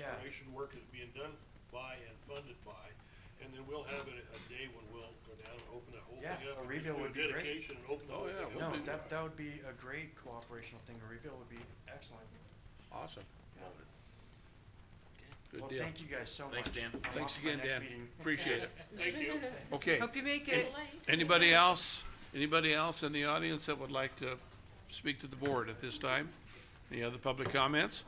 demolition work is being done by and funded by. And then we'll have a, a day when we'll go down and open that whole Yeah, thing up. a and reveal do would be great. Dedication and open the Oh, whole thing yeah, we'll up. No, do that, that would be a great cooperational thing, a reveal would be excellent. Awesome. Good Well, deal. thank you guys so much. Thanks, Dan. I'm off Thanks to my again, next Dan. meeting. Appreciate it. Thank you. Okay. Hope you make it. Anybody else, anybody else in the audience that would like to speak to the board at this time? Any other public comments?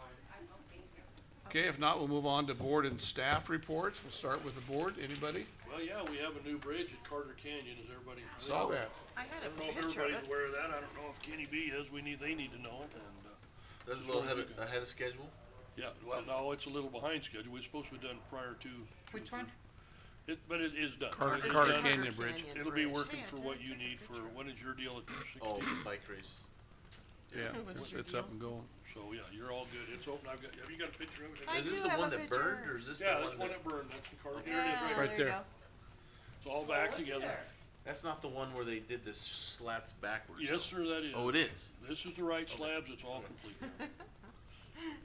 Okay, if not, we'll move on to board and staff reports. We'll start with the board. Anybody? Well, yeah, we have a new bridge at Carter Canyon, is everybody? Saw that. I I had don't know a if picture of everybody's it. aware of that, I don't know if Kenny B is, we need, they need to know it, and, uh, That's a little ahead of, ahead of schedule. yeah, well, no, it's a little behind schedule, it's supposed to be done prior to. Which one? It, but it is done. Carter- It's Carter done. Canyon Bridge. It'll be Bridge. working Hey, I for took- what I you took a need for, picture. what is your deal at two Oh, sixteen? bike race. Yeah, What's it's- your it's up deal? and going. So, yeah, you're all good, it's open, I've got, have you got a picture of it? I Is this do the have one a that burned picture. or is this the Yeah, that's one one that, that burned, that's the Carter, here it is, Yeah, right, Right there you there. go. it's all back together. that's not the one where they did the slats backwards? Yes, sir, that is. Oh, it is? This is the right slabs, it's all complete.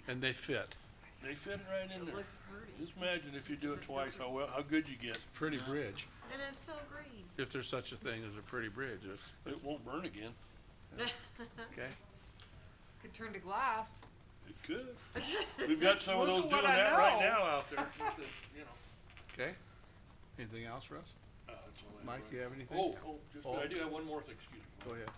And they fit. They fit right in there. Looks pretty. Just imagine if you do it twice, how well, how good you get. Pretty bridge. It is so green. If there's such a thing as a pretty bridge, it's, It won't burn again. okay? Could turn to glass. It could. We've got some of those Look at doing what I that right know. now out there. Just that, you know, Okay? Anything else, Russ? uh, that's all I have Mike, right you now. have anything? Oh, oh, just, Oh. I do have one more thing, excuse me. Go ahead.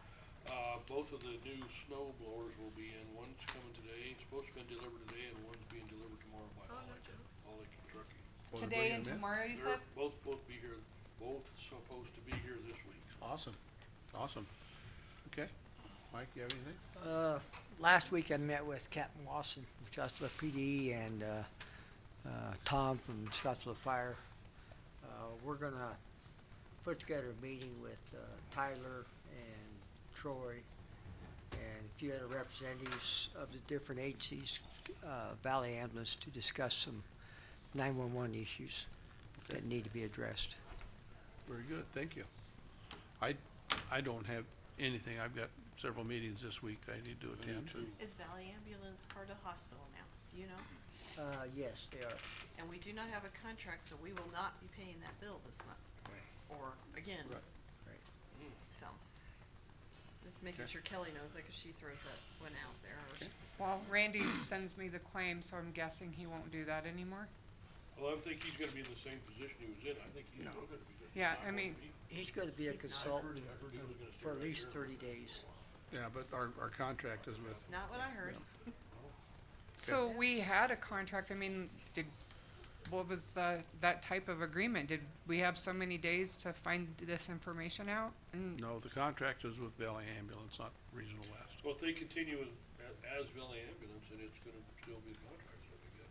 Uh, both of the new snow blowers will be in, one's coming today, supposed to be delivered today, and one's being delivered tomorrow by Oh, no Holly, Holly, Kentucky. Well, they're Today bringing and them in. tomorrow, you They're said? both, both be here, both supposed to be here this week, so Awesome, awesome. Okay, Mike, you have anything? Uh, last week I met with Captain Lawson from Scottsville PD and, uh, uh, Tom from Scottsville Fire. Uh, we're gonna put together a meeting with, uh, Tyler and Troy and a few other representatives of the different agencies, uh, Valley Ambulance to discuss some nine-one-one issues that need to be addressed. Very good, thank you. I, I don't have anything. I've got several meetings this week I need to attend. Is Valley Ambulance part of the hospital now, do you know? Uh, yes, they are. And we do not have a contract, so we will not be paying that bill this month. Or again. Right. Right. So. Just making Okay. sure Kelly knows that, cause she throws that one out there. or she- Well, Randy sends me the claim, so I'm guessing he won't do that anymore. Well, I think he's gonna be in the same position he was in, I think he's still gonna be. Yeah, not I gonna mean- be- He's gonna be a He's not- I heard, consultant I heard he was gonna stay for at right least here. thirty days. Yeah, but our, our contract is with, It's Not what I heard. So we had a contract, I mean, did, what was the, that type of agreement? Did we have so many days to find this information out? And no, the contract is with Valley Ambulance, not Regional West. Well, if they continue as, as Valley Ambulance, then it's gonna still be a contract, so we got.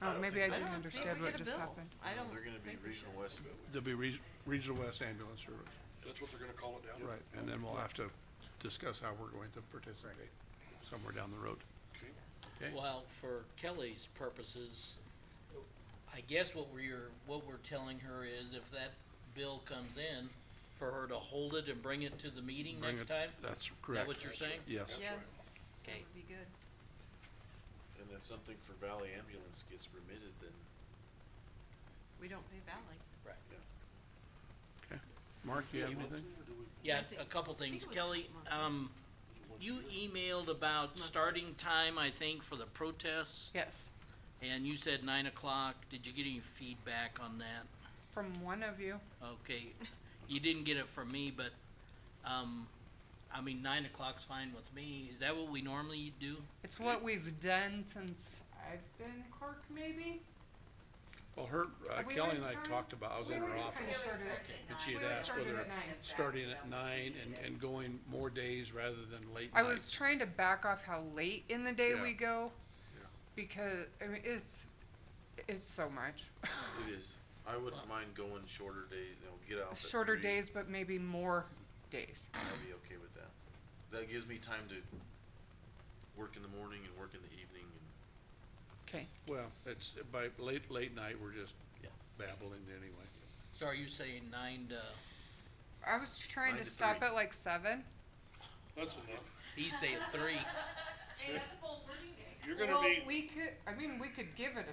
Oh, don't maybe I didn't think- I don't think understand we what get a just bill. happened. I don't They're gonna be think we regional should. west. There'll be Reg- Regional West Ambulance Service, That's what they're gonna call it down. right, and then we'll have to discuss how we're going to participate somewhere down the road. Okay. Yes. Okay. Well, for Kelly's purposes, I guess what we're, what we're telling her is if that bill comes in, for her to hold it and bring it to the meeting Bring next it- time? That's Is correct. that what you're saying? Yes, Yes, that Okay. would be good. And if something for Valley Ambulance gets remitted, then We don't pay Valley. Right. okay. Mark, you have anything? Yeah, think- a couple think things. it was Kelly, Monday. um, you emailed about starting time, I think, for the protests, Yes, and you said nine o'clock. Did you get any feedback on that? from one of you. Okay, you didn't get it from me, but, um, I mean, nine o'clock's fine with me. Is that what we normally do? It's what we've done since I've been clerk, maybe? Well, her, uh, We Kelly always and I started- talked about, I was we in her always kinda office. started at And she had We always asked started whether at nine. starting at nine and, and going more days rather than late I was nights. trying to back off how late in the day Yeah. we go. Yeah. Because, I mean, it's, it's so much. it is. I wouldn't mind going shorter days, you know, get out at three. Shorter days, but maybe more days. I'd be okay with that. That gives me time to work in the morning and work in the evening and Okay. Well, it's by late, late night, we're just Yeah. babbling anyway. So are you saying nine to, I was trying Nine to to stop three. at like seven. That's enough. he's saying three. You're gonna Well, be. we could, I mean, we could give it a